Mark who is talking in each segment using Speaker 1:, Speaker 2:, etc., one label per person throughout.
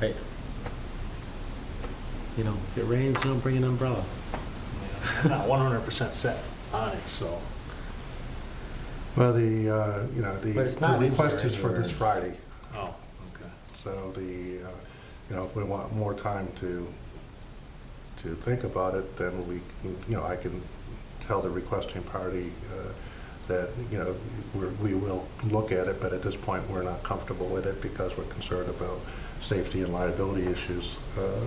Speaker 1: Right. You know, if it rains, don't bring an umbrella.
Speaker 2: I'm not one hundred percent set on it, so.
Speaker 3: Well, the, uh, you know, the
Speaker 1: But it's
Speaker 3: the
Speaker 1: not in
Speaker 3: request
Speaker 1: there
Speaker 3: is for this
Speaker 1: anywhere.
Speaker 3: Friday,
Speaker 2: Oh, okay.
Speaker 3: so the, uh, you know, if we want more time to, to think about it, then we, can- you know, I can tell the requesting party uh, that, you know, we're- we will look at it, but at this point, we're not comfortable with it because we're concerned about safety and liability issues. Uh,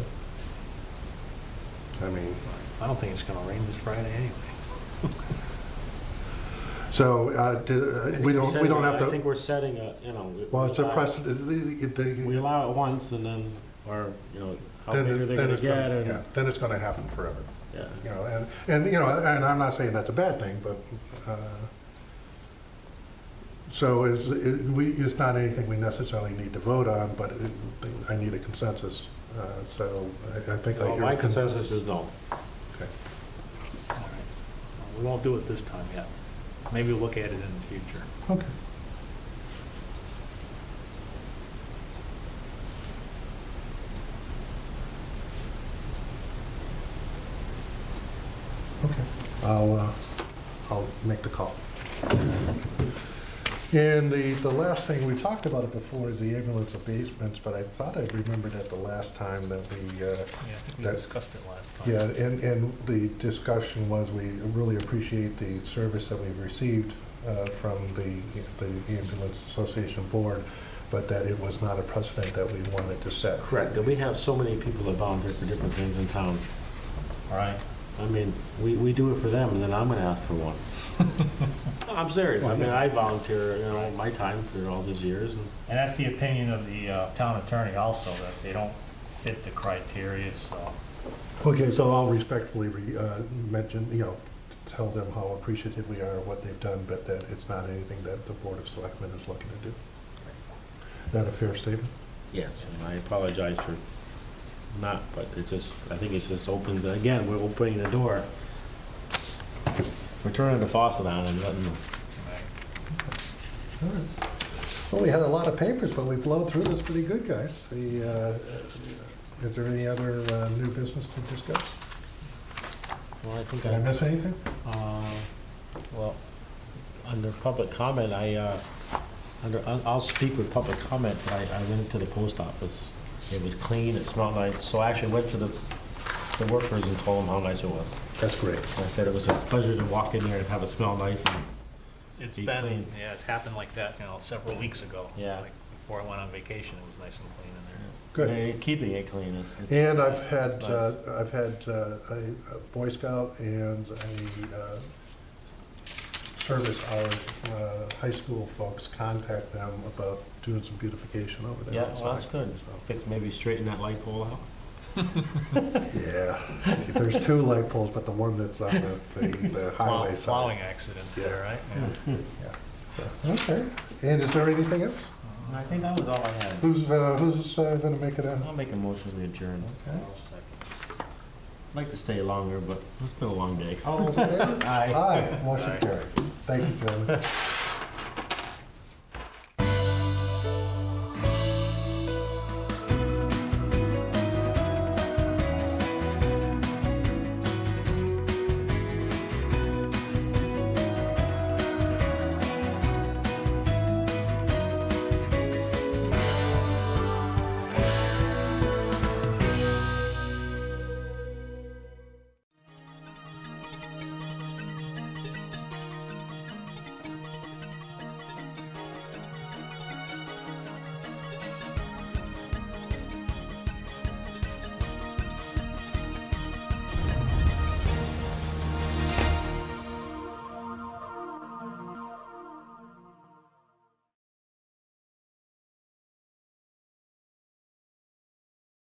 Speaker 3: I mean,
Speaker 2: I don't think it's gonna rain this Friday anyway.
Speaker 3: so uh, do- we don't, we don't have
Speaker 1: I think
Speaker 3: to,
Speaker 1: we're setting a, you know. we-
Speaker 3: well, it's a
Speaker 1: we allow-
Speaker 3: precedent. the- the-
Speaker 1: We allow it once and then, or, you know, how
Speaker 3: then
Speaker 1: big are
Speaker 3: it-
Speaker 1: they
Speaker 3: then
Speaker 1: gonna
Speaker 3: it's gonna-
Speaker 1: get
Speaker 3: yeah,
Speaker 1: and,
Speaker 3: Then it's going to happen forever,
Speaker 1: yeah.
Speaker 3: you know, and, and, you know, and I'm not saying that's a bad thing, but, uh, so is, it- we, it's not anything we necessarily need to vote on, but it- I need a consensus, uh, so I- I think that
Speaker 2: Well,
Speaker 3: you're.
Speaker 2: My consensus is no.
Speaker 3: Okay.
Speaker 2: All right. We won't do it this time yet. Maybe we'll look at it in the future.
Speaker 3: Okay. Okay, I'll, uh, I'll make the call. And the, the last thing, we talked about it before, is the ambulance abasements, but I thought I remembered at the last time that we, uh,
Speaker 2: Yeah, I think
Speaker 3: we
Speaker 2: we
Speaker 3: That-
Speaker 2: discussed it last time.
Speaker 3: yeah, and, and the discussion was, we really appreciate the service that we've received uh, from the, the Ambulance Association Board, but that it was not a precedent that we wanted to set.
Speaker 1: Correct, and we have so many people that volunteer for different things in town.
Speaker 2: All right.
Speaker 1: I mean, we, we do it for them and then I'm gonna ask for one. No, I'm serious, I mean, I volunteer, you know, my time for all these years and
Speaker 4: And that's the opinion of the uh, town attorney also, that they don't fit the criteria, so.
Speaker 3: Okay, so I'll respectfully re- uh, mention, you know, tell them how appreciative we are of what they've done, but that it's not anything that the Board of Selectmen is looking to do. Is that a fair statement?
Speaker 1: Yes, and I apologize for not, but it's just, I think it's just opens, again, we're opening the door. We're turning the faucet on and letting them.
Speaker 3: All right. Well, we had a lot of papers, but we blown through this pretty good, guys. The, uh, is there any other uh, new business to discuss?
Speaker 1: Well, I think
Speaker 3: Did I
Speaker 1: I,
Speaker 3: miss anything?
Speaker 1: uh, well, under public comment, I, uh, under, I'll I'll speak with public comment, but I, I went to the post office. It was clean, it smelled nice, so I actually went to the, the workers and told them how nice it was.
Speaker 3: That's great.
Speaker 1: And I said it was a pleasure to walk in here and have it smell nice and
Speaker 4: It's
Speaker 1: Be
Speaker 4: been,
Speaker 1: clean.
Speaker 4: yeah, it's happened like that, you know, several weeks ago.
Speaker 1: Yeah.
Speaker 4: Like, Before I went on vacation, it was nice and clean in there.
Speaker 3: Good.
Speaker 1: They're Keeping it clean is. is-
Speaker 3: And I've had,
Speaker 1: That's
Speaker 3: uh,
Speaker 1: nice.
Speaker 3: I've had uh, a a Boy Scout and a uh, service, our uh, high school folks contact them about doing some beautification over there.
Speaker 1: Yeah, well, that's good.
Speaker 3: So,
Speaker 1: Fix, maybe straighten that light pole out.
Speaker 3: Yeah, there's two light poles, but the one that's on the- the the
Speaker 4: Plow-
Speaker 3: highway side.
Speaker 4: Plowing accidents there, right?
Speaker 2: Mm-hmm.
Speaker 4: Yeah.
Speaker 3: Okay, and is there anything else?
Speaker 1: I think that was all I had.
Speaker 3: Who's, uh, who's uh, gonna make it out?
Speaker 1: I'll make a motion to adjourn.
Speaker 3: Okay.
Speaker 1: I'd like to stay longer, but it's been a long day.
Speaker 3: All those in favor?
Speaker 1: Aye.
Speaker 3: Aye, motion carried. Thank you, gentlemen.